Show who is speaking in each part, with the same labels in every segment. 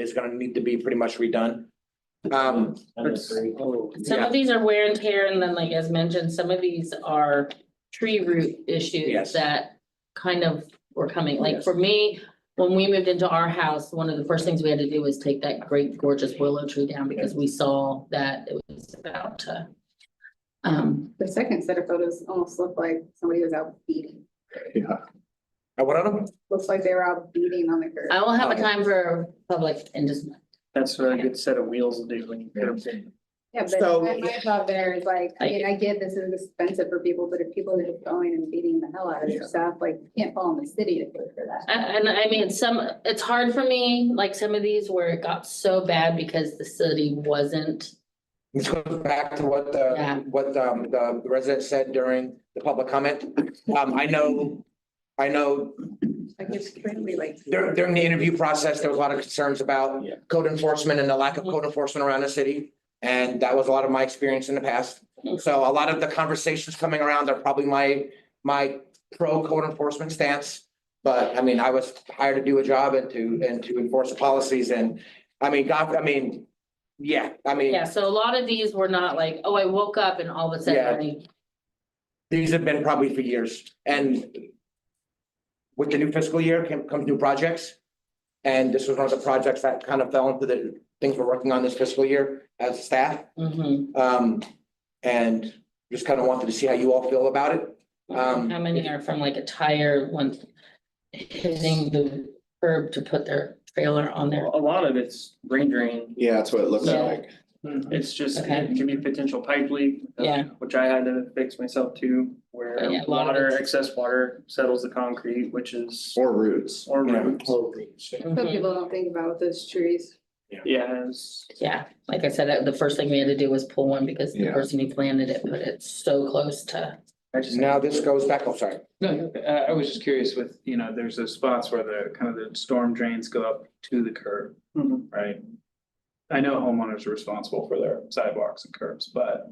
Speaker 1: is gonna need to be pretty much redone. Um,
Speaker 2: Some
Speaker 1: Yeah.
Speaker 2: of these are wear and tear, and then like as mentioned, some of these are tree root
Speaker 1: Yes.
Speaker 2: issues that kind of were coming, like
Speaker 1: Yes.
Speaker 2: for me, when we moved into our house, one of the first things we had to do was take that great gorgeous willow tree down because we saw that it was about to. Um,
Speaker 3: The second set of photos almost look like somebody was out beating,
Speaker 1: I went on them,
Speaker 3: looks like they were out beating on the curb.
Speaker 2: I will have a
Speaker 1: Okay.
Speaker 2: time for public and just,
Speaker 4: That's what a good set of wheels will do when you put them in.
Speaker 3: Yeah,
Speaker 1: So-
Speaker 3: but my, my thought there is like, I mean, I get this is expensive for people, but if people are just going and beating the hell out of
Speaker 1: Yeah.
Speaker 3: their stuff, like, you can't fall in the city to pay for that.
Speaker 2: I- and I mean, some, it's hard for me, like some of these where it got so bad because the city wasn't.
Speaker 1: this goes back to what
Speaker 2: Yeah.
Speaker 1: the, what um, the resident said during the public comment. Um, I know, I know
Speaker 3: Like, it's really like.
Speaker 1: During, during the interview process, there was a lot of concerns about
Speaker 4: Yeah.
Speaker 1: code enforcement and the lack of code enforcement around the city. And that was a lot of my experience in the past. So a lot of the conversations coming around are probably my, my pro code enforcement stance. But I mean, I was hired to do a job and to, and to enforce the policies and, I mean, God, I mean, yeah, I mean,
Speaker 2: Yeah, so a lot of these were not like, oh, I woke up and all of a sudden, I-
Speaker 1: these have been probably for years and with the new fiscal year can come new projects. And this was one of the projects that kind of fell into the things we're working on this fiscal year as staff.
Speaker 2: Mhm.
Speaker 1: Um, and just kind of wanted to see how you all feel about it. Um,
Speaker 2: how many are from like a tire once hitting the curb to put their trailer on there?
Speaker 4: A lot of it's rain drain.
Speaker 5: Yeah, that's what it looks
Speaker 2: Yeah.
Speaker 5: like.
Speaker 4: It's just,
Speaker 2: Mm-hmm. Okay.
Speaker 4: it can be a potential pipe leak. uh,
Speaker 2: Yeah. Oh,
Speaker 4: Which I had to fix myself too, where
Speaker 2: Yeah, a lot of
Speaker 4: water,
Speaker 2: it's-
Speaker 4: excess water settles the concrete, which is,
Speaker 5: Or roots.
Speaker 4: or
Speaker 1: Yeah. Oh,
Speaker 4: roots.
Speaker 1: Mm-hmm.
Speaker 3: Some
Speaker 2: Mhm.
Speaker 3: people don't think about those trees.
Speaker 4: Yes,
Speaker 2: Yeah, like I said, the first thing we had to do was pull one because the
Speaker 5: Yeah.
Speaker 2: person who planted it put it so close to.
Speaker 4: I just.
Speaker 1: Now this goes back, I'm sorry.
Speaker 6: No, you're okay. I, I was just curious with, you know, there's those spots where the, kind of the storm drains go up to the curb,
Speaker 4: Mhm.
Speaker 6: right? I know homeowners are responsible for their sidewalks and curbs, but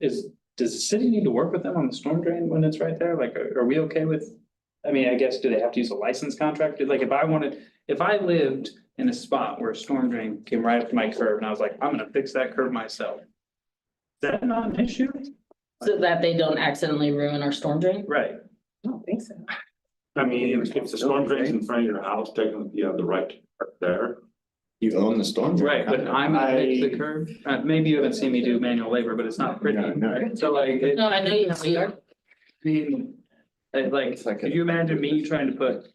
Speaker 6: is, does the city need to work with them on the storm drain when it's right there? Like, are, are we okay with? I mean, I guess, do they have to use a licensed contractor? Like, if I wanted, if I lived in a spot where a storm drain came right up to my curb and I was like, I'm gonna fix that curb myself. Is that not an issue?
Speaker 2: So that they don't accidentally ruin our storm drain?
Speaker 6: Right,
Speaker 3: I don't think so.
Speaker 7: I mean, if if the storm drains in front of your house, technically you have the right to park there.
Speaker 5: You own the storm. drain
Speaker 6: Right, but I'm gonna fix the curb, uh, maybe you haven't seen me do manual labor, but it's not pretty,
Speaker 5: Yeah, no.
Speaker 6: right? so like, it,
Speaker 2: No, I know you have a yard.
Speaker 6: I mean. it, like,
Speaker 5: It's like
Speaker 6: could
Speaker 5: a-
Speaker 6: you imagine me trying to put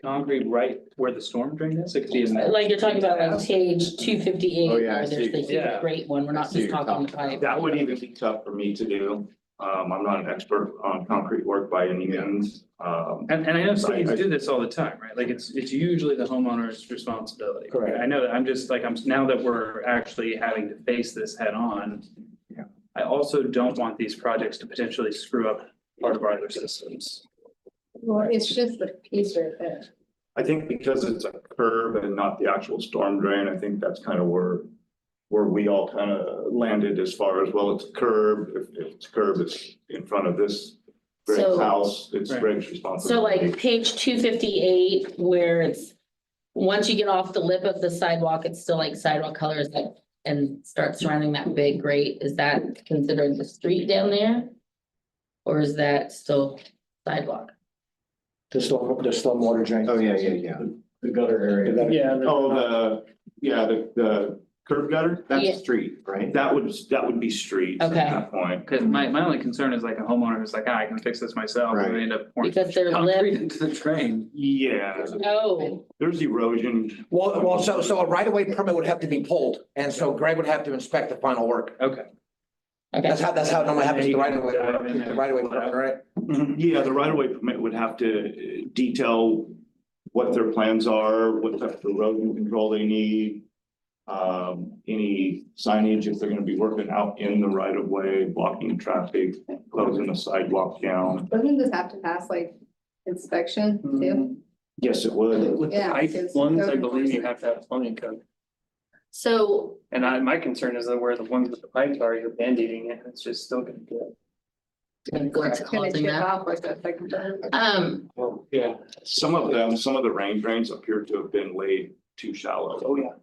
Speaker 6: concrete right where the storm drain is, it could be. a-
Speaker 2: Like you're talking about like page two fifty-eight,
Speaker 5: Oh, yeah, I
Speaker 2: where there's
Speaker 5: see.
Speaker 2: the huge
Speaker 6: Yeah.
Speaker 2: great one. We're
Speaker 5: I
Speaker 2: not
Speaker 5: see
Speaker 2: just
Speaker 5: what you're
Speaker 2: talking the
Speaker 5: talking
Speaker 2: pipe.
Speaker 7: That would even be tough for me to do. Um, I'm not an expert on concrete work by any means. Um,
Speaker 6: And, and I know cities
Speaker 7: I- I-
Speaker 6: do this all the time, right, like, it's, it's usually the homeowner's responsibility.
Speaker 1: Correct.
Speaker 6: I know that, I'm just like, I'm, now that we're actually having to face this head on.
Speaker 5: Yeah.
Speaker 6: I also don't want these projects to potentially screw up part of our other systems.
Speaker 3: Well, it's just the piece right there.
Speaker 7: I think because it's a curb and not the actual storm drain, I think that's kind of where where we all kind of landed as far as, well, it's a curb, if if it's a curb, it's in front of this Greg's
Speaker 2: So-
Speaker 7: house, it's
Speaker 6: Right.
Speaker 7: Greg's
Speaker 2: So
Speaker 7: responsibility.
Speaker 2: like page two fifty-eight where it's, once you get off the lip of the sidewalk, it's still like sidewalk colors that. And start surrounding that big grate, is that considered the street down there? Or is that still sidewalk?
Speaker 1: The storm, the storm water drain.
Speaker 5: Oh, yeah, yeah, yeah. The gutter area.
Speaker 4: Yeah. the-
Speaker 7: Oh, the, yeah, the the curb gutter,
Speaker 5: That's
Speaker 2: Yeah.
Speaker 5: a street, right?
Speaker 7: that would, that would be streets at
Speaker 2: Okay.
Speaker 7: that point.
Speaker 6: Cause my, my only concern is like a homeowner who's like, "Ah, I can fix this myself, and they
Speaker 5: Right.
Speaker 6: end up. pouring
Speaker 2: Because they're
Speaker 6: concrete Into the drain.
Speaker 7: Yeah,
Speaker 2: Oh,
Speaker 7: there's erosion.
Speaker 1: Well, well, so, so a right of way permit would have to be pulled. And so Greg would have to inspect the final work.
Speaker 6: Okay.
Speaker 2: okay,
Speaker 1: That's how, that's how it normally happens, the right of way, the right of way permit, right?
Speaker 7: Yeah, the right of way permit would have to uh, detail what their plans are, what type of erosion control they need. Um, any signage if they're gonna be working out in the right of way, blocking traffic, closing the sidewalk down.
Speaker 3: Doesn't this have to pass like inspection
Speaker 1: Mm-hmm.
Speaker 3: too?
Speaker 4: Mhm.
Speaker 7: Yes, it would.
Speaker 4: With the
Speaker 3: Yeah,
Speaker 4: pipe
Speaker 3: because
Speaker 4: ones, I
Speaker 3: code
Speaker 4: believe you
Speaker 3: enforcement.
Speaker 4: have to have plumbing code.
Speaker 2: so
Speaker 4: And I, my concern is that where the ones with the pipes are, you're band-aiding it, it's just still gonna get.
Speaker 2: what's
Speaker 3: Gonna
Speaker 2: causing
Speaker 3: chip
Speaker 2: that?
Speaker 3: off like that second time.
Speaker 2: Um,
Speaker 7: Some of them, some of the rain drains appear to have been laid too shallow.
Speaker 4: Oh, yeah.